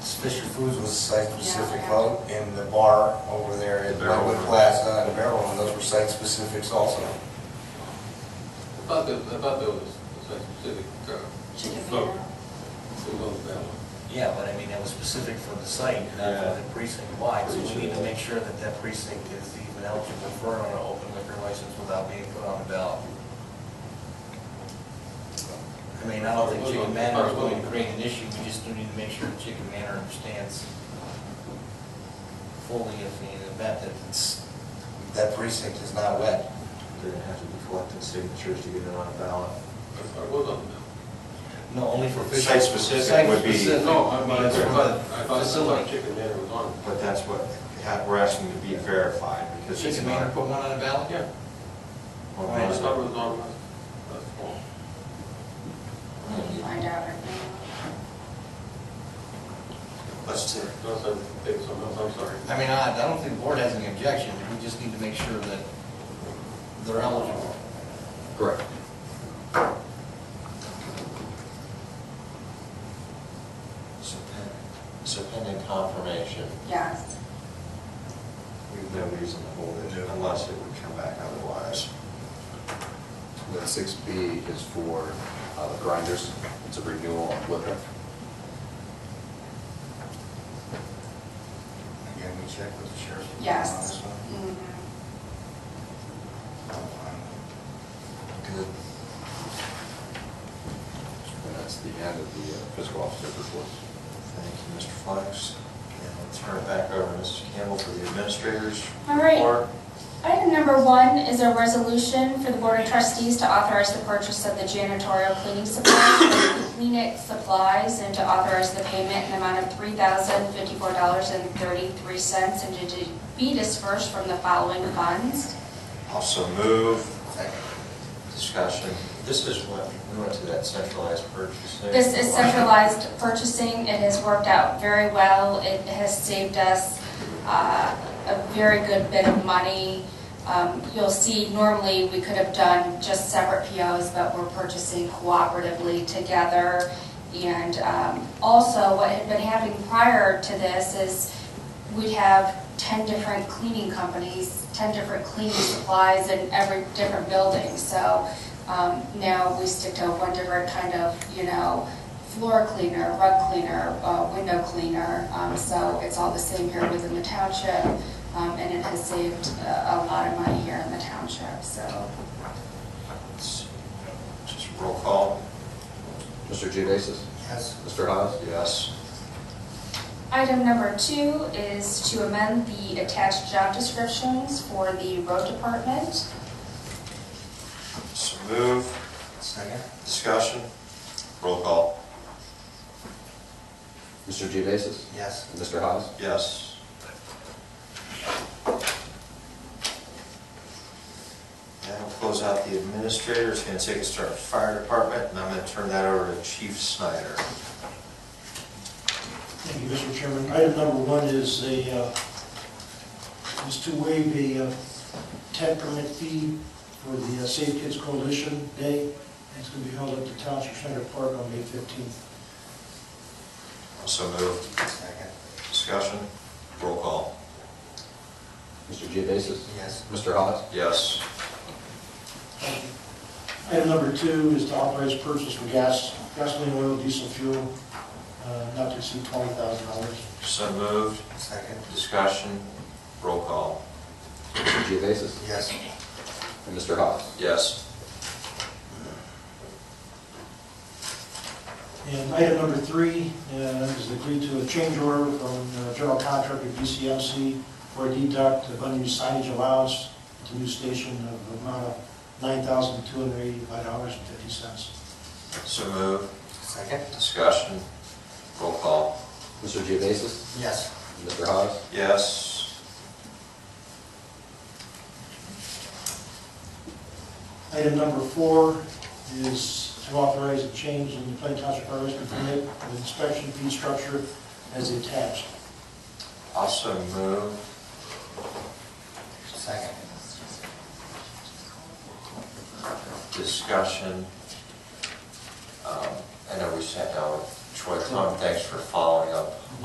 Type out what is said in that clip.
Fisher Foods was site-specific vote, and the bar over there at Barrel. Redwood Plaza and Barrel, and those were site-specifics also. About the, about those, that's specific, uh, vote, who voted that one? Yeah, but I mean, that was specific for the site, not for the precinct wide, so we need to make sure that that precinct is even eligible for an open liquor license without being put on the ballot. I mean, I don't think Chicken Manor is going to create an issue, we just do need to make sure Chicken Manor understands fully if in the event that it's, That precinct is not wet. They're gonna have to be collecting signatures to get it on a ballot. That's what was on that. no, only for. Site-specific would be- Site-specific. No, I mean, I It's for thought, the I thought, I facility. thought Chicken Dinner was on. But that's what, ha- we're asking to be verified because it's Chicken Manor not. put one on the ballot? Yeah, Well, I Right. not- thought it was on, that's all. Find out right now. Let's take, No, so, it was something else, I'm sorry. I mean, I, I don't think the board has any objection, we just need to make sure that they're eligible. correct. So pen- So pending confirmation, Yes. We have no reason to hold it unless it would come back otherwise. Then six B is for uh, the grinders, it's a renewal on liquor. Again, we checked with the sheriff. Yes. On this one. Mhm. Good. And that's the end of the uh, fiscal officer report. Thank you, Mr. Flex. And we'll turn it back over to Mrs. Campbell for the administrators. All right. report. Item number one is a resolution for the Board of Trustees to authorize the purchase of the janitorial cleaning supplies, from Kleenex supplies, and to authorize the payment in the amount of $3,054.33 and to be dispersed from the following funds. Also move, Second. discussion. This is what, we went to that centralized purchasing. This is centralized purchasing. It has worked out very well. It has saved us uh, a very good bit of money. Um, You'll see, normally, we could have done just separate POs, but we're purchasing cooperatively together. And um, also, what had been happening prior to this is we'd have 10 different cleaning companies, 10 different cleaning supplies in every different building. So um, now we stick to one different kind of, you know, floor cleaner, rug cleaner, uh, window cleaner. Um, So it's all the same here within the township, um, and it has saved a a lot of money here in the township, so. Just roll call. Mr. Geovasis? Yes. Mr. Haas? Yes. Item number two is to amend the attached job descriptions for the road department. So move, Second. discussion. Roll call. Mr. Geovasis? Yes. Mr. Haas? Yes. That'll close out the administrator. It's gonna take us to our fire department, and I'm gonna turn that over to Chief Snyder. Thank you, Mr. Chairman. Item number one is a, uh, is to waive a uh, tag permit fee for the uh, Safe Kids Coalition Day. It's going to be held at the Township Center Park on May 15th. So move, Second. discussion. Roll call. Mr. Geovasis? Yes. Mr. Haas? Yes. Item number two is to authorize purchase of gas, gasoline, oil, diesel fuel, uh, not to exceed $20,000. So moved, Second. discussion. Roll call. Mr. Geovasis? Yes. And Mr. Haas? Yes. And item number three uh, is agreed to a change order from uh, general contractor BCMC for a deduct of unused signage allowance to new station of the amount of $9,285.50. So move, Second. discussion. Roll call. Mr. Geovasis? Yes. Mr. Haas? Yes. Item number four is to authorize a change in the Plain Township Fire Rescue Permit with inspection fee structure as attached. Also move, Second. discussion. Um, I know we sat down with Troy Plum, thanks for following up